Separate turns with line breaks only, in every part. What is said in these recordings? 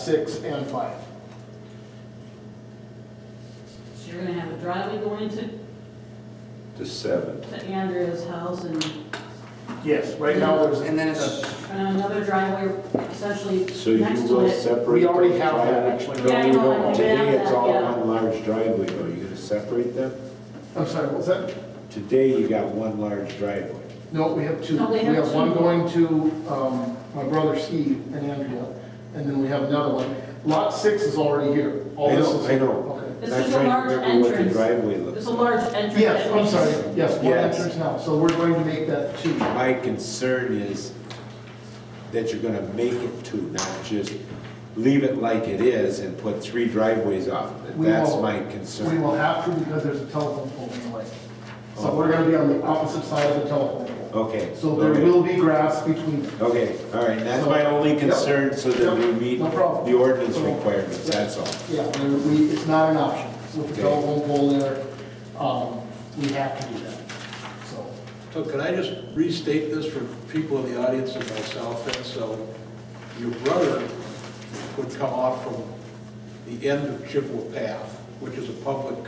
six, and five.
So you're gonna have a driveway going into
to seven.
to Andrea's house and
Yes, right now there's.
And then it's-
and another driveway essentially
So you
next to
will
it.
separate.
We already
those
have that,
driveway-
actually.
Yeah, I
No, you
know,
don't.
I
Today,
have
it's
that,
all
yeah.
one large driveway, though. You're gonna separate them?
I'm sorry, what was that?
Today, you got one large driveway.
No, we have two.
No,
We
they have
have one
two.
going to um, my brother Steve and Andrea, and then we have another one. Lot six is already here. All
I
Oh, this
know,
is-
I know.
Okay.
This
Not
is a
trying to
large
remember what the
entrance.
Driveway looks.
There's a large entrance.
Yes,
that
I'm
leads-
sorry, yes, one
Yes.
entrance now, so we're going to make that two.
My concern is that you're gonna make it two, not just leave it like it is and put three driveways off. of it.
We
That's
will-
my
We
concern.
will have to because there's a telephone pole in the way. So we're gonna be on the opposite side of the telephone pole.
Okay.
So there
okay.
will be grass between them.
Okay, all right, that's my only concern, so that we
Yep,
meet
no problem.
the ordinance requirements, that's all.
Yeah, there- we, it's not an option. With the
Okay.
telephone pole there, um, we have to do that, so.
So can I just restate this for people in the audience and myself then? So your brother would come off from the end of Chippewa Path, which is a public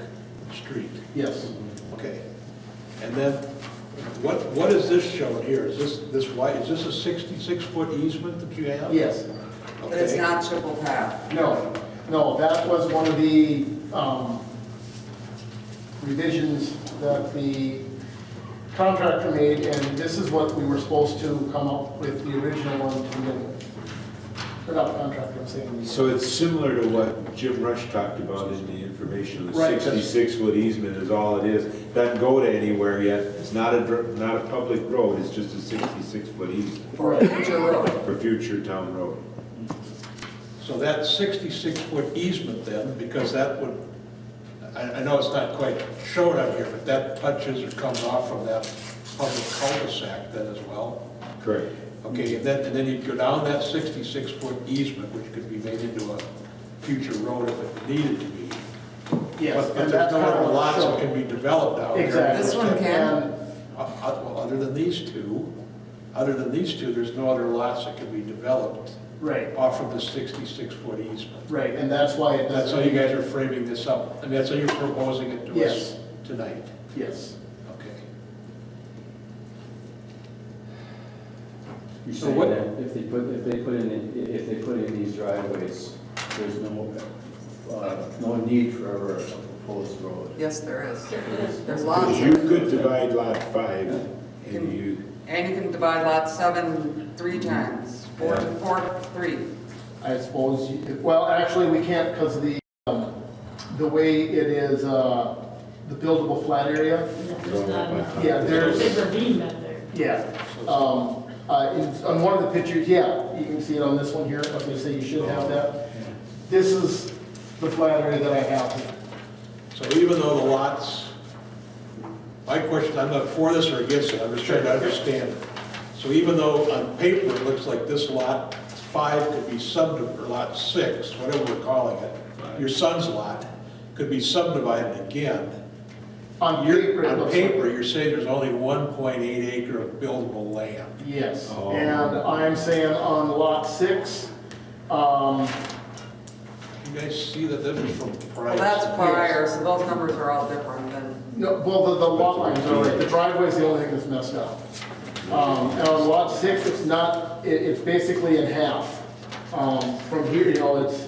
street.
Yes,
Okay. And then what, what is this shown here? Is this, this wide, is this a 66-foot easement that you have?
yes.
But it's
Okay.
not triple path.
No, no, that was one of the um, revisions that the contractor made, and this is what we were supposed to come up with, the original one to begin with. Or not contractor, I'm saying.
So it's similar to what Jim Rush talked about in the information, the
Right, that's-
sixty-six foot easement is all it is. Doesn't go to anywhere yet, it's not a, dr- not a public road, it's just a sixty-six foot easement
For a future road.
for future town road.
So that 66-foot easement then, because that would, I, I know it's not quite shown on here, but that touches or comes off from that public cul-de-sac then as well.
Correct.
Okay, and then, and then you'd go down that 66-foot easement, which could be made into a future road if it needed to be.
Yes,
But- But
and
there's
that's
no
kind of
other
what
lots
it's
that can
showing.
be developed out there.
Exactly.
This one can?
And
Uh, uh, Well, other than these two, other than these two, there's no other lots that can be developed
Right,
off of the 66-foot easement.
right, and that's why it
That's
doesn't.
how you guys are framing this up, I mean, that's how you're proposing it to us
Yes.
tonight?
Yes.
Okay.
You're
So
saying
what-
that if they put, if they put in, the- if they put in these driveways, there's no, uh, no need for ever a proposed road.
Yes, there is.
Yes.
There's lots.
Because you could divide lot five and you,
And you can divide lot seven three times, four, four, three.
I suppose, you- well, actually, we can't because the, um, the way it is, uh, the buildable flat area,
There's not enough.
yeah, there's.
There's a ravine back there.
Yeah, um, uh, in- on one of the pictures, yeah, you can see it on this one here, like I say, you should have that. This is the flat area that I have here.
So even though the lots, my question, I'm not for this or against it, I'm just trying to understand. So even though on paper it looks like this lot five could be sub, or lot six, whatever we're calling it, your son's lot, could be subdivided again.
On paper, it
On
looks like-
paper, you're saying there's only 1.8 acre of buildable land.
Yes,
Oh.
and I'm saying on lot six, um,
You guys see that this is from
Well,
Price?
that's prior, so those numbers are all different than,
no, well, the, the lot lines are right, the driveway's the only thing that's messed up. Um, and on lot six, it's not, it, it's basically in half. Um, from here, you know, it's,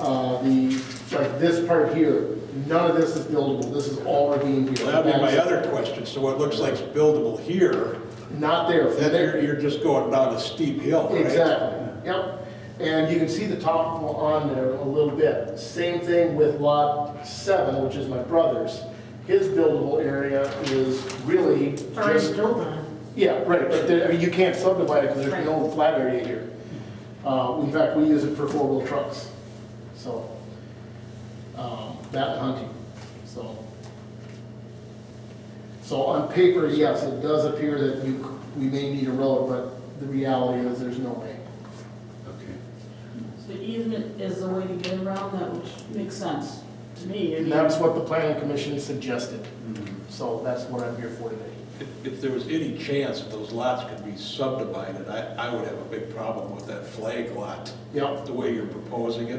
uh, the, like this part here, none of this is buildable, this is all ravine here.
Well, that'd be my other question, so what looks like is buildable here,
Not there,
then
from
you're,
there,
you're just going down a steep hill, right?
exactly, yep. And you can see the top on there a little bit. Same thing with lot seven, which is my brother's. His buildable area is really
Already
just,
built on.
yeah, right, but there, I mean, you can't subdivide it because there's no flat area here. Uh, in fact, we use it for four-wheel trucks, so, um, that and hunting, so. So on paper, yes, it does appear that you, c- we may need a road, but the reality is there's no way.
okay.
So easement is the way to get around that, which makes sense to me. I mean,
Mm-hmm. And that's what the planning commission suggested, so that's what I'm here for today.
if- if there was any chance that those lots could be subdivided, I, I would have a big problem with that flag lot,
Yep.
the way you're proposing it.